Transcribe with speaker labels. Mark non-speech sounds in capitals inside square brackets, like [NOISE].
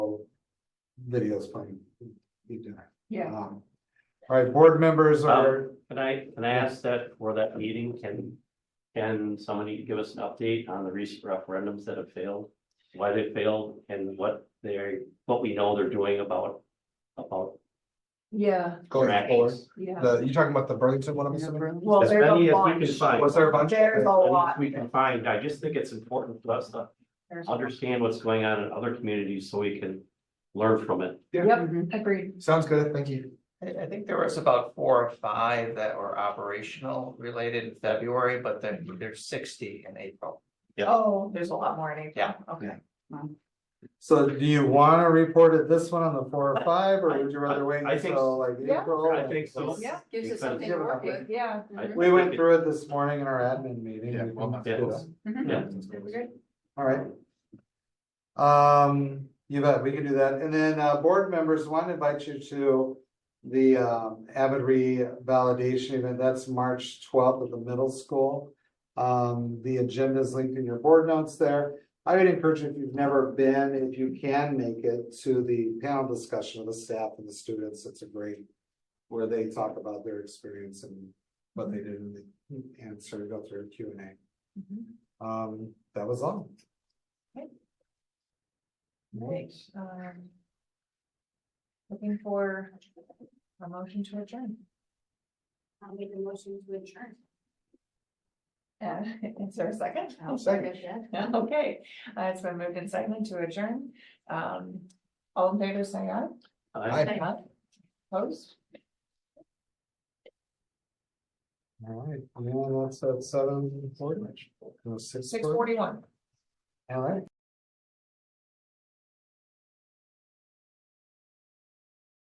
Speaker 1: video's fine. Be done.
Speaker 2: Yeah,
Speaker 1: Um, All right, board members are,
Speaker 3: Can I, can I ask that for that meeting, can, can somebody give us an update on the recent referendums that have failed? Why they failed and what they're, what we know they're doing about, about
Speaker 2: yeah,
Speaker 3: Um,
Speaker 1: going forward.
Speaker 3: trackings.
Speaker 2: yeah.
Speaker 1: The, you talking about the Burlington one, I'm assuming?
Speaker 2: Well,
Speaker 3: As
Speaker 2: there's a
Speaker 3: many as we
Speaker 2: bunch.
Speaker 3: can find.
Speaker 1: Was there a bunch?
Speaker 2: There's a
Speaker 3: As many
Speaker 2: lot.
Speaker 3: as We can find, I just think it's important for us to
Speaker 2: There's a lot.
Speaker 3: understand what's going on in other communities so we can learn from it.
Speaker 2: Yep, agreed.
Speaker 1: Sounds good, thank you.
Speaker 4: I, I think there was about four or five that were operational related in February, but then there's sixty in April.
Speaker 3: Yep.
Speaker 2: Oh, there's a lot more in April.
Speaker 4: Yeah.
Speaker 2: Okay.
Speaker 1: So do you wanna report it this one on the four or five, or would you rather wait
Speaker 3: I- I think
Speaker 1: until like
Speaker 2: Yeah.
Speaker 1: April?
Speaker 3: I think so.
Speaker 2: Yeah,
Speaker 5: Gives us
Speaker 3: Because-
Speaker 5: something to work with.
Speaker 2: yeah.
Speaker 3: I-
Speaker 2: mhm.
Speaker 1: We went through it this morning in our admin meeting.
Speaker 4: Yeah,
Speaker 1: We
Speaker 4: well,
Speaker 1: can-
Speaker 3: yeah.
Speaker 2: Mhm.
Speaker 3: Yeah.
Speaker 2: Good.
Speaker 1: All right. Um, you bet, we can do that. And then, uh, board members, want to invite you to the, um, Avid revalidation event. That's March twelfth at the middle school. Um, the agenda is linked in your board notes there. I would encourage you, if you've never been, if you can make it to the panel discussion with the staff and the students, it's a great where they talk about their experience and what they did and they answer, go through a Q and A.
Speaker 2: Mhm.
Speaker 1: Um, that was all.
Speaker 2: Right, um. Looking for a motion to adjourn.
Speaker 5: I'll make a motion to adjourn.
Speaker 2: Uh, [LAUGHS] is there a [LAUGHS] second?
Speaker 5: I'll
Speaker 1: second.
Speaker 5: second
Speaker 2: Okay, uh, it's been moved and seconded to adjourn. Um, all in favor, say aye.
Speaker 3: I-
Speaker 1: Aye.
Speaker 2: Aye. Opposed?
Speaker 1: All right, and that's at seven forty, no, six
Speaker 2: Six
Speaker 1: forty,
Speaker 2: forty-one.
Speaker 1: all right.